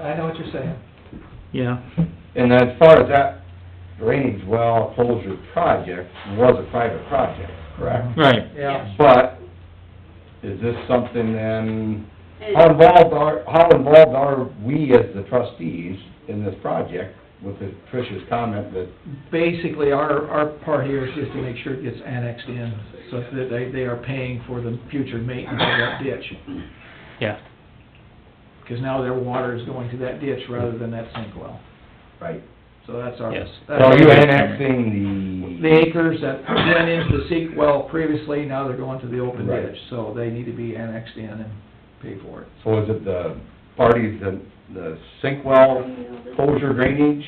I know what you're saying. yeah. And as far as that drainage well closure project, was a private project. Correct. Right. Yeah. But is this something then, how involved are, how involved are we as the trustees in this project with the Trish's comment that, Basically, our, our part here is just to make sure it gets annexed in, so that they, they are paying for the future maintenance of that ditch. Yeah. Because now their water is going to that ditch rather than that sink well. right? So that's our. Yes. that's So our- you annexing The acres that went into the sink well previously, now they're going to the open Right. ditch, so they need to be annexed in and pay for it. So is it the parties, the, the sink well closure drainage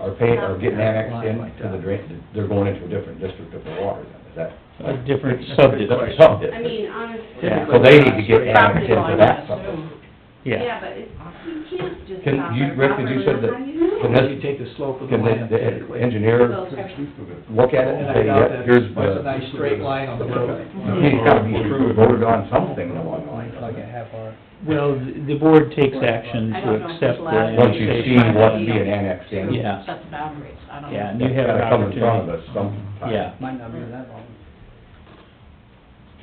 are paying, are getting annexed into the drain, they're going into a different district of the water then, is that? A different subdivision, Subdivision. I mean, honestly. Yeah. So they need to get Property annexed into line, that I subdivision. assume. yeah. but it's, you can't just. Can stop you- our Rick, did you property said that- line. How do you know? Can this- You take the slope of the Can land the- the typically. engineer Those are- look at it And and I say, doubt yeah, that here's There's a the, nice straight line on the road. he's gotta be voted on something along the line, doesn't it? Well, the the board takes action I to don't know if accept it's allowed the in Once you see annexation. what's being annexed in. Yeah. Set the boundaries, I don't know. Yeah, and you That's have an gotta come in front opportunity. of us sometime. Yeah. Might not be that long.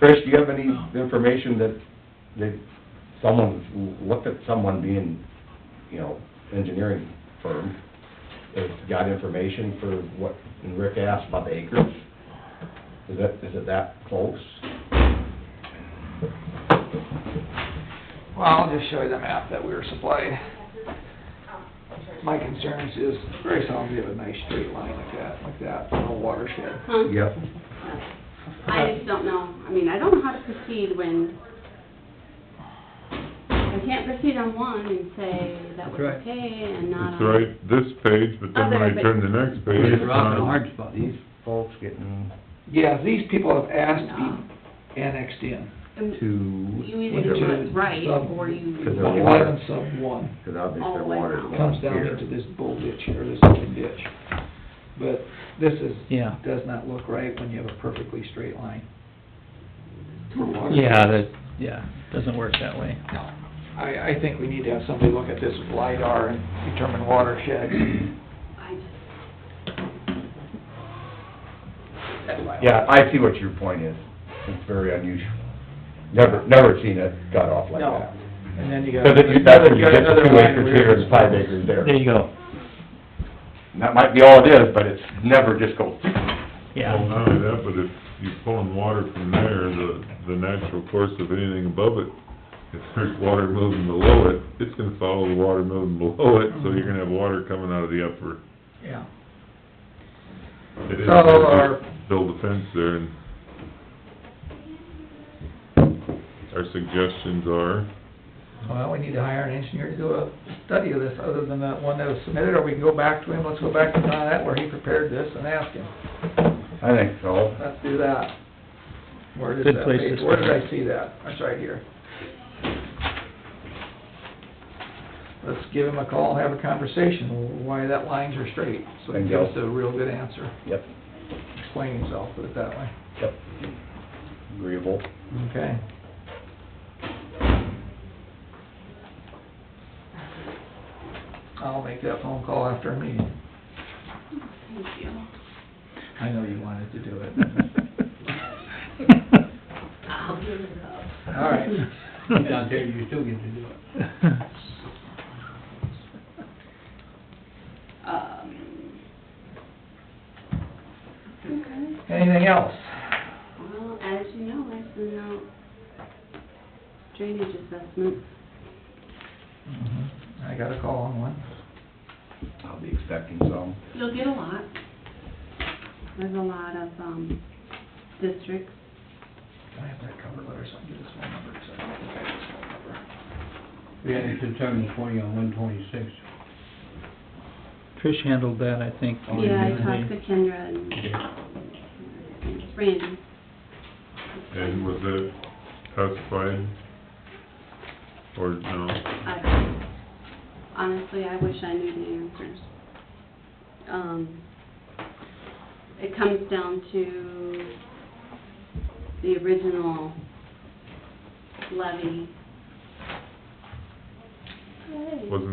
Trish, do you have any information that, that someone's looked at someone being, you know, engineering firm, has got information for what Rick asked about the acres? Is that, is it that close? Well, I'll just show you the map that we were supplied. My concerns is, very seldom you have a nice straight line like that, like that, no watershed. Huh? Yep. I just don't know, I mean, I don't know how to proceed when, I can't proceed on one and say that That's was right. okay and not on. It's right, this page, but then when I turn the next page, it's Rock and not. hard spot. These folks getting Yeah, these people have asked to be annexed in, And You to, either do it right or Cause you, they're water. eleven sub one. cause obviously their water's comes going down here. into this bull ditch here, this open ditch. But this is, Yeah. does not look right when you have a perfectly straight line. Yeah, that, yeah, doesn't work that way. No. I, I think we need to have somebody look at this with LiDAR and determine watershed. I just. Yeah, I see what your point is. It's very unusual. Never, never seen it cut off like No, that. and then you got. Cause it, you- that's when you get the two acres here and five acres there. There you go, And that might be all it is, but it's never just goes. Well, yeah. not only that, but if you're pulling water from there, the, the natural course of anything above it, if there's water moving below it, it's gonna follow the water moving below it, so you're gonna have water coming out of the upper. Yeah. It is, So our- just build a fence there and our suggestions are, Well, we need to hire an engineer to do a study of this, other than that one that was submitted, or we can go back to him, let's go back to Don that where he prepared this and ask him. I think so. Let's do that. Where does Good that place to page, where did I start. see that? That's right here. Let's give him a call, and have a conversation, why that lines are straight, so he gives us a real good answer, Yep, explain himself, put it that way, yep. Agreeable. okay? I'll make that phone call after a meeting. Thank you. I know you wanted to do it. I'll give it up. All right. Down there, you still get to do it. Um, okay. Anything else? Well, as you know, I sent out drainage assessments. Mhm. I got a call on one. I'll be expecting some. You'll get a lot. There's a lot of, um, districts. Can I have that cover letter so I can get his phone number? 'Cause I don't think I have his phone number. We had it to turn the twenty on one twenty-six. Trish handled that, I think. Yeah, I talked to Kendra and Randy. and was it classified or no? Uh, I, honestly, I wish I knew the answers. Um, it comes down to the original levy. Wasn't